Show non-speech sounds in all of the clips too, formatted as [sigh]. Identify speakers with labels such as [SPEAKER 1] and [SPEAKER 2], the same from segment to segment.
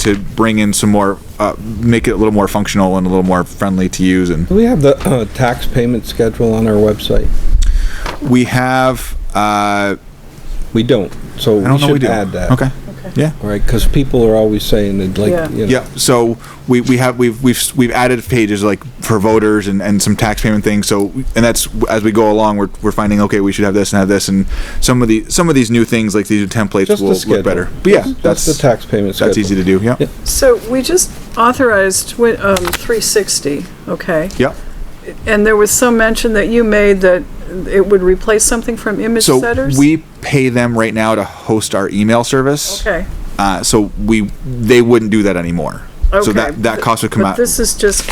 [SPEAKER 1] to bring in some more, uh, make it a little more functional and a little more friendly to use and
[SPEAKER 2] Do we have the uh, tax payment schedule on our website?
[SPEAKER 1] we have, uh,
[SPEAKER 2] We don't, so
[SPEAKER 1] I don't
[SPEAKER 2] we
[SPEAKER 1] know we
[SPEAKER 2] should
[SPEAKER 1] do.
[SPEAKER 2] add that.
[SPEAKER 1] Okay, yeah.
[SPEAKER 2] All right, because people are always saying they'd
[SPEAKER 3] Yeah.
[SPEAKER 2] like, you know.
[SPEAKER 1] Yeah, so we, we have, we've, we've, we've added pages like for voters and, and some tax payment things, so, and that's, as we go along, we're, we're finding, okay, we should have this and have this, and some of the, some of these new things, like these new templates
[SPEAKER 2] Just the
[SPEAKER 1] will look
[SPEAKER 2] schedule.
[SPEAKER 1] better. But yeah,
[SPEAKER 2] Just-
[SPEAKER 1] that's,
[SPEAKER 2] Just the tax payment schedule.
[SPEAKER 1] that's easy to do, yeah,
[SPEAKER 2] Yeah.
[SPEAKER 3] So we just authorized wi- um, 360, okay?
[SPEAKER 1] yeah.
[SPEAKER 3] And there was some mention that you made that it would replace something from image
[SPEAKER 1] So
[SPEAKER 3] setters?
[SPEAKER 1] we pay them right now to host our email service.
[SPEAKER 3] Okay.
[SPEAKER 1] Uh, so we, they wouldn't do that anymore. So
[SPEAKER 3] Okay.
[SPEAKER 1] that, that cost would come
[SPEAKER 3] But
[SPEAKER 1] out,
[SPEAKER 3] this is just,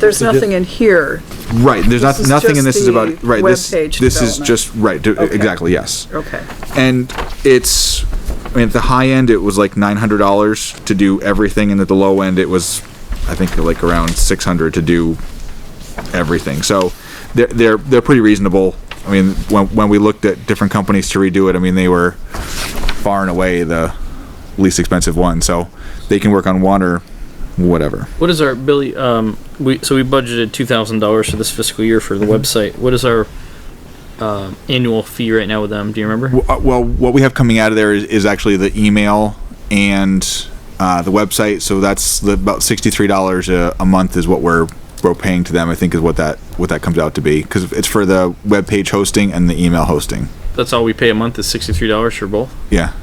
[SPEAKER 3] there's nothing in here.
[SPEAKER 1] right, there's not,
[SPEAKER 3] this is
[SPEAKER 1] nothing in
[SPEAKER 3] just
[SPEAKER 1] this is
[SPEAKER 3] the
[SPEAKER 1] about, right, this,
[SPEAKER 3] webpage
[SPEAKER 1] this is
[SPEAKER 3] development.
[SPEAKER 1] just, right, d-
[SPEAKER 3] Okay.
[SPEAKER 1] exactly, yes.
[SPEAKER 3] Okay.
[SPEAKER 1] and it's I mean at the high end it was like nine hundred dollars to do everything, and at the low end it was I think like around six hundred to do everything. So they're they're they're pretty reasonable. I mean when when we looked at different companies to redo it, I mean they were far and away the least expensive one. So they can work on one or whatever.
[SPEAKER 4] What is our Billy? Um, we so we budgeted two thousand dollars for this fiscal year for the
[SPEAKER 1] Mm-hmm.
[SPEAKER 4] website. What is our um annual fee right now with them? Do you remember?
[SPEAKER 1] W- uh, Well, what we have coming out of there is, is actually the email and uh, the website. So that's the, about sixty-three dollars a, a month is what we're we're paying to them. I think is what that what that comes out to be because it's for the web page hosting and the email hosting.
[SPEAKER 4] That's all we pay a month is sixty three dollars for both.
[SPEAKER 1] Yeah.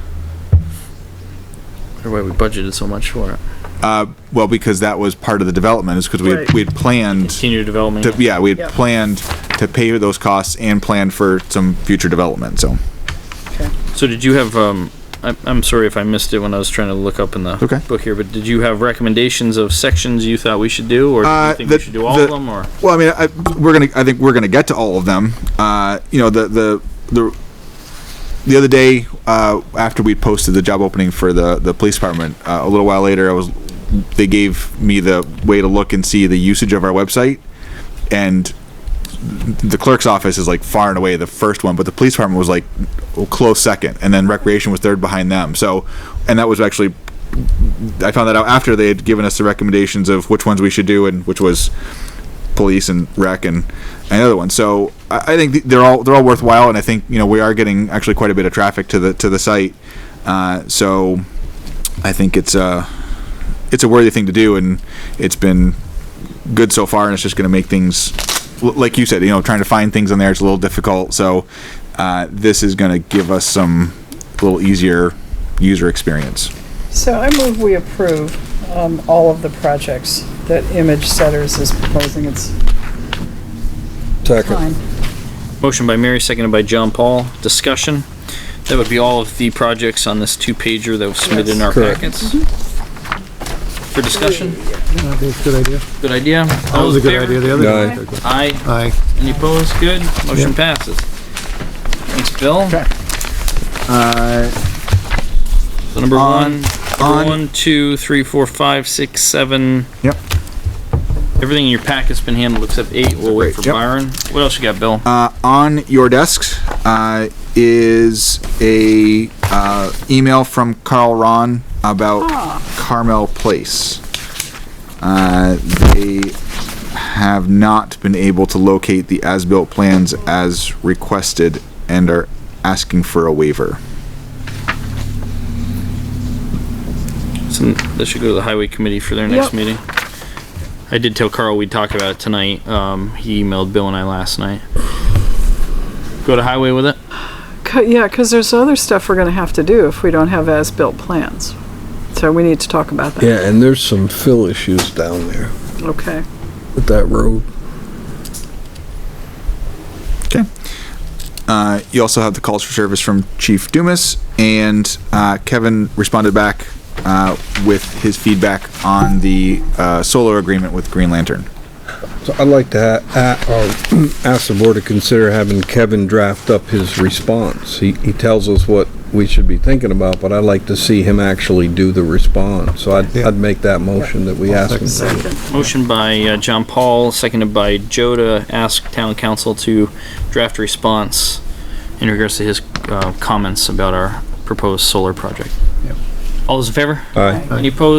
[SPEAKER 4] Or why we budgeted so much for it?
[SPEAKER 1] Uh, well, because that was part of the development is because we
[SPEAKER 3] Right.
[SPEAKER 1] we had planned.
[SPEAKER 4] Senior development.
[SPEAKER 1] To, yeah, we had
[SPEAKER 3] Yep.
[SPEAKER 1] planned to pay those costs and planned for some future development. So
[SPEAKER 4] So did you have? Um, I'm, I'm sorry if I missed it when I was trying to look up in the
[SPEAKER 1] Okay.
[SPEAKER 4] book here, but did you have recommendations of sections you thought we should do, or do
[SPEAKER 1] Uh,
[SPEAKER 4] you think
[SPEAKER 1] the-
[SPEAKER 4] we should do all
[SPEAKER 1] the-
[SPEAKER 4] of them, or
[SPEAKER 1] Well, I mean, I, we're gonna. I think we're gonna get to all of them. Uh, you know, the the the the other day uh, after we posted the job opening for the the police department, uh, a little while later, I was they gave me the way to look and see the usage of our website, and the clerk's office is like far and away the first one, but the police department was like a close second, and then recreation was third behind them. So, and that was actually I found that out after they had given us the recommendations of which ones we should do, and which was police and rec and another one. So I, I think th- they're all they're all worthwhile, and I think you know we are getting actually quite a bit of traffic to the to the site. Uh, so I think it's a it's a worthy thing to do, and it's been good so far, and it's just going to make things l- like you said, you know, trying to find things on there it's a little difficult. So uh, this is going to give us some little easier user experience.
[SPEAKER 3] So I move we approve um, all of the projects that Image Setters is proposing its
[SPEAKER 2] Second.
[SPEAKER 3] time.
[SPEAKER 4] motion by Mary, seconded by John Paul. Discussion. That would be all of the projects on this two pager that was submitted in our
[SPEAKER 2] Correct.
[SPEAKER 4] packets for discussion.
[SPEAKER 5] Yeah, I think it's a good idea.
[SPEAKER 4] Good idea.
[SPEAKER 5] That was a good idea. The other
[SPEAKER 2] Aye.
[SPEAKER 5] one.
[SPEAKER 4] Aye.
[SPEAKER 5] Aye.
[SPEAKER 4] Any opposed? Good. Motion passes. Thanks, Bill.
[SPEAKER 1] Okay.
[SPEAKER 4] So number
[SPEAKER 1] On-
[SPEAKER 4] one,
[SPEAKER 1] on-
[SPEAKER 4] number one, two, three, four, five, six, seven.
[SPEAKER 1] Yep.
[SPEAKER 4] Everything in your packet's been handled except eight. We'll wait for
[SPEAKER 1] Yep.
[SPEAKER 4] Byron. What else you got, Bill?
[SPEAKER 1] Uh, on your desks uh, is a uh, email from Carl Ron about Carmel Place. Uh, they have not been able to locate the as-built plans as requested and are asking for a waiver.
[SPEAKER 4] So This should go to the highway committee for their
[SPEAKER 3] Yep.
[SPEAKER 4] next meeting. I did tell Carl we'd talk about it tonight. Um, he emailed Bill and I last night. Go to highway with it?
[SPEAKER 3] Co- Yeah, because there's other stuff we're going to have to do if we don't have as-built plans. So we need to talk about that.
[SPEAKER 2] Yeah, and there's some fill issues down there
[SPEAKER 3] Okay.
[SPEAKER 2] with that road.
[SPEAKER 1] Uh, you also have the calls for service from Chief Dumas, and uh, Kevin responded back uh, with his feedback on the uh, solar agreement with Green Lantern.
[SPEAKER 2] So I'd like to ha- a- um, [clears throat] ask the board to consider having Kevin draft up his response. He, he tells us what we should be thinking about, but I'd like to see him actually do the response. So I'd,
[SPEAKER 5] Yeah.
[SPEAKER 2] I'd make that motion that we ask him. to do.
[SPEAKER 3] Second.
[SPEAKER 4] Motion by uh, John Paul, seconded by Joe to ask town council to draft a response in regards to his uh, comments about our proposed solar project. All those in favor?
[SPEAKER 2] Aye.
[SPEAKER 4] Any opposed?